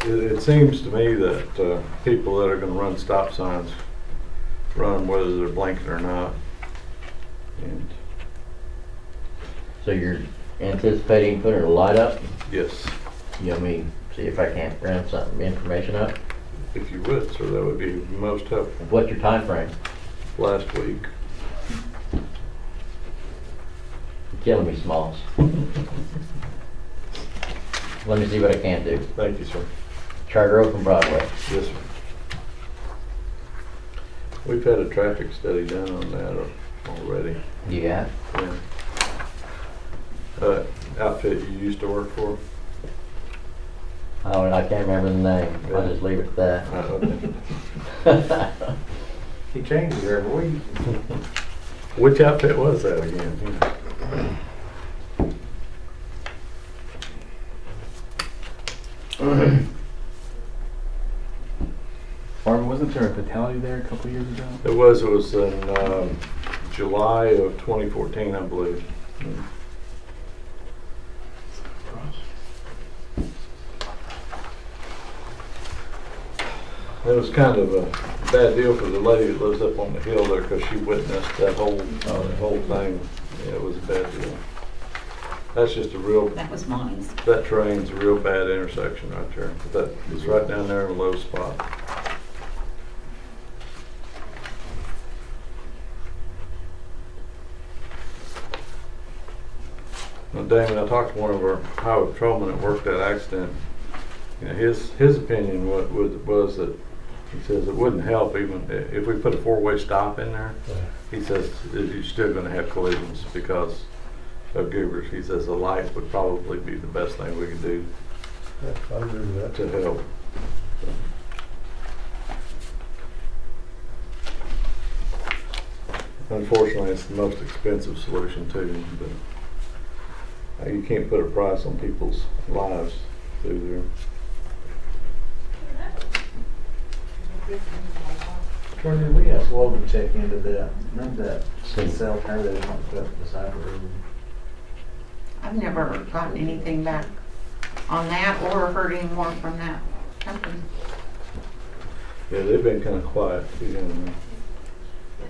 It, it seems to me that, uh, people that are gonna run stop signs, run 'em whether they're blinking or not. And, So you're anticipating putting a light up? yes, You want me to see if I can't round some information up? if you would, sir, that would be most helpful. What's your time frame? Last week, You're killing me, Smalls. Let me see what I can do. thank you, sir. Charter Oak and Broadway. Yes, sir. We've had a traffic study done on that al- already. Yeah. Yeah. Uh, outfit you used to work for? Oh, and I can't remember the name. I'll just leave it at that. Uh, okay. He changes every week. Which outfit was that again? Yeah. Marvin, wasn't there a fatality there a couple years ago? It was, it was in um, July of 2014, I believe. It was kind of a bad deal for the lady that lives up on the hill there because she witnessed that whole, uh, the whole thing. Yeah, It was a bad deal. That's just a real, That was Monty's. that train's a real bad intersection right there. That is right down there in a low spot. Now, Damon, I talked to one of our highway patrolmen that worked that accident. You know, his, his opinion was, was that, he says it wouldn't help even, i- if we put a four-way stop in there, he says, is you're still gonna have collisions because of goobers. He says a light would probably be the best thing we could do I agree with that. to help. Unfortunately, it's the most expensive solution too, but uh, you can't put a price on people's lives through Troy, did we ask Logan to check into that? Remember that cell tower that they want to put up beside the road? I've never gotten anything back on that or heard any more from that company. there. Yeah, they've been kind of quiet. you know.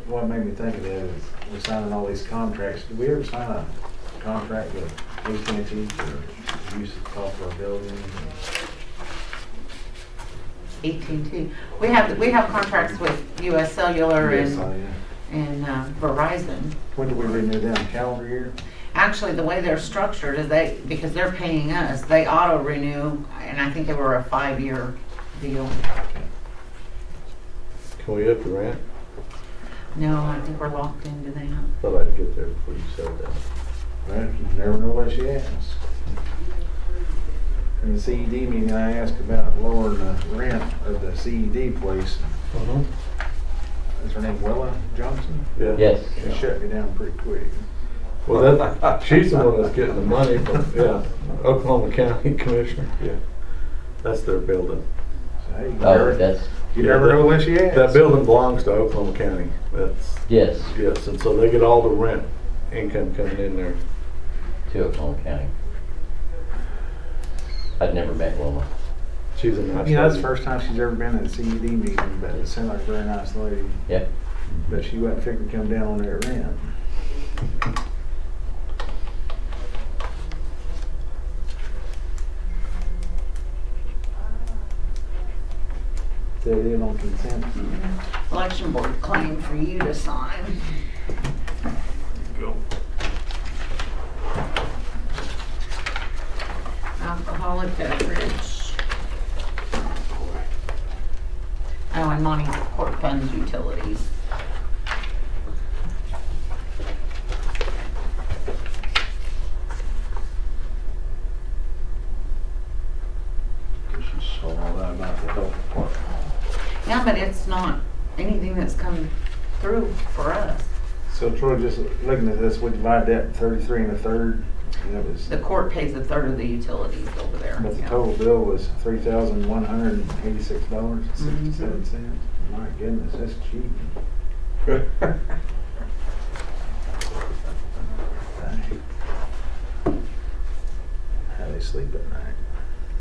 What made me think of that is we're signing all these contracts. Did we ever sign a contract with AT&T for use of our building? AT&T. We have, we have contracts with US Cellular Yes, I and, am. and uh, Verizon. When do we renew them? Calendar year? Actually, the way they're structured is they, because they're paying us, they auto renew, and I think they were a five-year deal. Can we up the rent? No, I think we're locked into that. Thought I'd get there before you said that. Well, you never know what she asks. In the CED meeting, I asked about lowering the rent of the CED place. Is her name Willa Johnson? Yeah. Yes. She shut me down pretty quick. Well, that, she's the one that's getting the money from, yeah, Oklahoma County Commissioner, yeah. That's their building. So, hey, you Oh, never- that's, You never know what she asks. That building belongs to Oklahoma County. That's, yes, yes, and so they get all the rent income coming in there. to Oklahoma County. I'd never met Wilma. She's a nice. You know, that's the lady. first time she's ever been at a CED meeting, but it seemed like a very nice lady. Yeah. But she wasn't figuring to come down on that rent. They did on consent. Election board claim for you to sign. Alcoholic beverage. Oh, and money court funds utilities. Cause she saw all that about the health department. Yeah, but it's not anything that's come through for us. So Troy, just looking at this, we divide that thirty-three and a third, and it was, The court pays a third of the utilities over there. but the yeah. total bill was three thousand one hundred and eighty-six dollars and sixty-seven cents. My goodness, that's cheap. How they sleep at night.